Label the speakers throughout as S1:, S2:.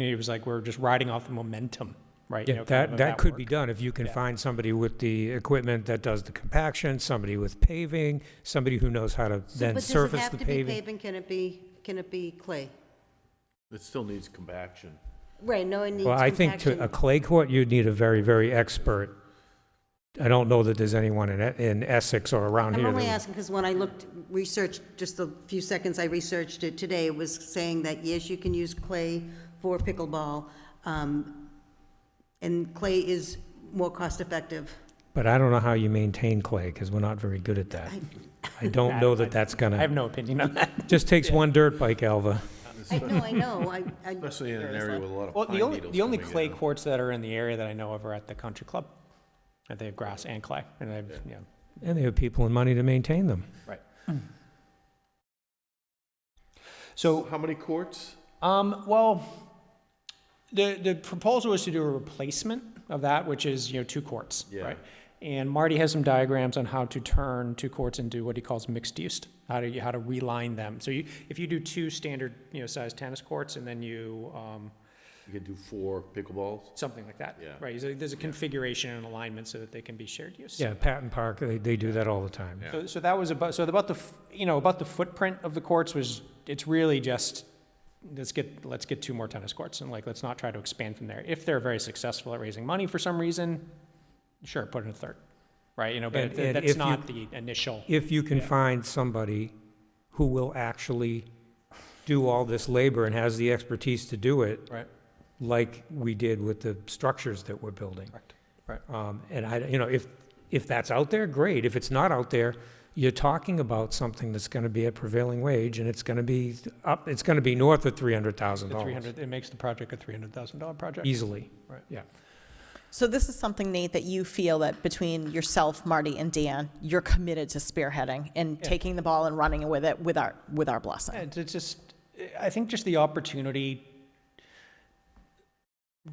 S1: It was like, we're just riding off the momentum, right? You
S2: Yeah,
S1: know, kind of
S2: that,
S1: of
S2: that could be
S1: work.
S2: done if you can
S1: Yeah.
S2: find somebody with the equipment that does the compaction, somebody with paving, somebody who knows how to then surface the
S3: But does it have to be
S2: paving.
S3: paving, can it be, can it be clay?
S4: It still needs compaction.
S3: Right, no, it needs
S2: Well, I think to a
S3: compaction.
S2: clay court, you'd need a very, very expert. I don't know that there's anyone in, E- in Essex or around
S3: I'm
S2: here.
S3: only
S2: that-
S3: asking because when I looked, researched, just the few seconds I researched it today, it was saying that, yes, you can use clay for pickleball, um, and clay is more cost-effective.
S2: But I don't know how you maintain clay, because we're not very good at that. I don't know that that's
S1: I
S2: gonna,
S1: have no opinion on that.
S2: just takes one dirt bike, Alva.
S3: I know, I know, I, I,
S4: Especially in an area with a lot of
S1: Well,
S4: pine
S1: the only,
S4: needles
S1: the only
S4: coming
S1: clay
S4: in.
S1: courts that are in the area that I know of are at the country club. And they have grass and clay, and they have, you know,
S2: And they have people and money to maintain them. Hmm.
S1: so,
S4: How many courts?
S1: um, well, the, the proposal is to do a replacement of that, which is, you know, two courts,
S4: Yeah.
S1: right? And Marty has some diagrams on how to turn two courts into what he calls mixed use, how to, how to reline them. So you, if you do two standard, you know, size tennis courts, and then you, um,
S4: You can do four pickleballs?
S1: something like that.
S4: Yeah.
S1: Right, so there's a configuration and alignment so that they can be shared use.
S2: Yeah, Patton Park, they, they do that all the time.
S4: Yeah.
S1: So, so that was about, so about the, f- you know, about the footprint of the courts was, it's really just, let's get, let's get two more tennis courts and like, let's not try to expand from there. If they're very successful at raising money for some reason, sure, put in a third, right? You know, but
S2: And-
S1: th-
S2: and
S1: that's
S2: if you-
S1: not the initial.
S2: If you can find somebody who will actually do all this labor and has the expertise to do it,
S1: Right.
S2: like we did with the structures that we're building.
S1: Correct. Right.
S2: Um, and I, you know, if, if that's out there, great. If it's not out there, you're talking about something that's gonna be at prevailing wage and it's gonna be up, it's gonna be north of three hundred thousand
S1: The three
S2: dollars.
S1: hundred, it makes the project a three hundred thousand dollar project.
S2: Easily.
S1: Right.
S2: Yeah.
S5: So this is something, Nate, that you feel that between yourself, Marty, and Dan, you're committed to spearheading and
S1: Yeah.
S5: taking the ball and running with it with our with our
S1: Yeah,
S5: blessing.
S1: It's it's just, I think just the opportunity,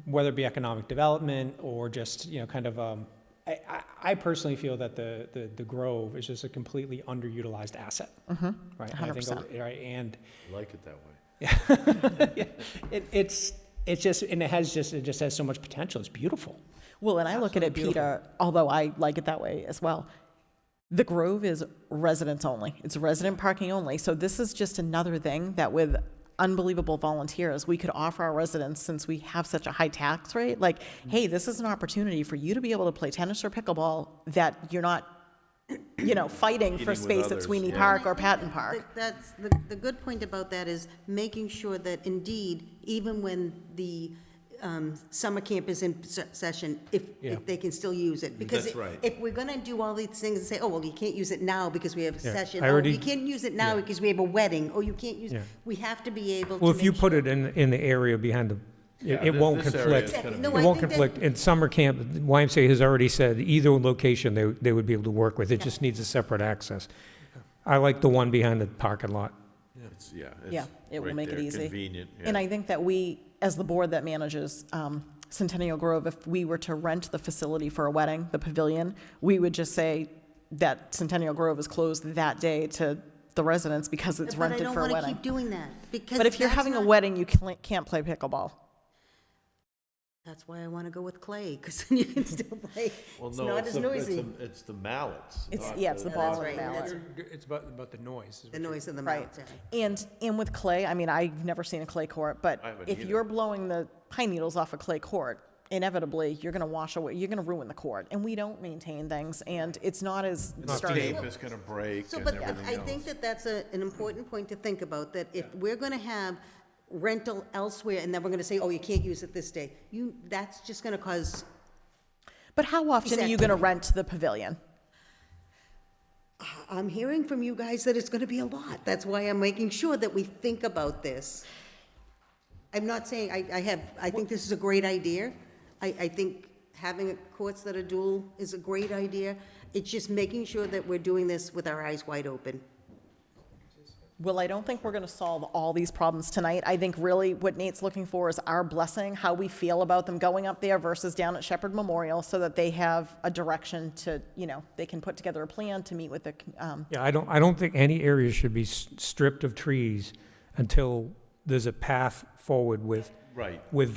S1: whether it be economic development or just, you know, kind of, um, I, I, I personally feel that the, the, the Grove is just a completely underutilized asset,
S5: Mm-hmm.
S1: right? And I think,
S5: 100%.
S1: Right, and
S4: I like it that way.
S1: it, it's, it's just, and it has just, it just has so much potential. It's beautiful.
S5: Well, and I look at it,
S1: Absolutely
S5: Peter, although I like it that way as well. The Grove is residents only. It's resident parking only. So this is just another thing that with unbelievable volunteers, we could offer our residents since we have such a high tax rate. Like,
S4: Mm-hmm.
S5: hey, this is an opportunity for you to be able to play tennis or pickleball that you're not, you know, fighting
S4: Competing
S5: for
S4: with
S5: space at
S4: others,
S5: Sweeney
S4: yeah.
S5: Park or Patton Park.
S3: That- That's, the, the good point about that is making sure that indeed, even when the um, summer camp is in se- session, if,
S1: Yeah.
S3: if they can still use it. Because
S4: That's right.
S3: If we're gonna do all these things and say, oh, well, you can't use it now because we have a
S2: Yeah,
S3: session.
S2: I
S3: Oh,
S2: already-
S3: You can't use it now
S2: yeah.
S3: because we have a wedding, or you can't use,
S2: Yeah.
S3: we have to be able to.
S2: Well, if you
S3: make
S2: put it in, in the area behind the,
S4: Yeah,
S2: it- it
S4: thi-
S2: won't
S4: this area
S2: conflict.
S4: is
S3: Exactly.
S4: gonna
S3: No,
S4: be-
S3: I
S2: It won't
S3: think that-
S2: conflict. In summer camp, YMCA has already said either location they, they would be able to work with. It just needs a separate access. I like the one behind the parking lot.
S4: It's- Yeah. it's
S5: Yeah, it will
S4: right
S5: make it
S4: there,
S5: easy.
S4: Convenient,
S5: And
S4: yeah.
S5: I think that we, as the board that manages um, Centennial Grove, if we were to rent the facility for a wedding, the pavilion, we would just say that Centennial Grove is closed that day to the residents because it's rented for a
S3: But I don't wanna
S5: wedding.
S3: keep doing that, because.
S5: But if you're
S3: that's
S5: having a
S3: not-
S5: wedding, you can't can't play pickleball.
S3: That's why I wanna go with clay, because you can still play.
S4: Well,
S3: It's
S4: no,
S3: not as
S4: the- it's
S3: noisy.
S4: the- It's the mallets.
S5: It's-
S4: not
S5: yeah, it's the
S3: Yeah,
S5: ball
S3: that's
S5: and
S3: right,
S5: ballot.
S3: that's
S1: It's about, about the noise.
S3: The noise of the
S5: Right.
S3: mountain.
S5: And, and with clay, I mean, I've never seen a clay court, but
S4: I haven't
S5: if
S4: either.
S5: you're blowing the pine needles off a clay court, inevitably, you're gonna wash away, you're gonna ruin the court. And we don't maintain things, and it's not as sturdy.
S4: Tape is gonna break
S3: So,
S4: and
S3: but uh,
S4: everything
S3: I think
S4: else.
S3: that that's a, an important point to think about, that if we're gonna have rental elsewhere, and then we're gonna say, oh, you can't use it this day, you, that's just gonna cause,
S5: But how often are you going to
S3: Exactly.
S5: rent the pavilion?
S3: I'm hearing from you guys that it's gonna be a lot, that's why I'm making sure that we think about this. I'm not saying, I, I have, I think this is a great idea, I, I think having courts that are dual is a great idea, it's just making sure that we're doing this with our eyes wide open.
S5: Well, I don't think we're going to solve all these problems tonight. I think really what Nate's looking for is our blessing, how we feel about them going up there versus down at Shepherd Memorial so that they have a direction to, you know, they can put together a plan to meet with the, um,
S2: Yeah, I don't, I don't think any area should be s- stripped of trees until there's a path forward with
S4: Right.
S2: with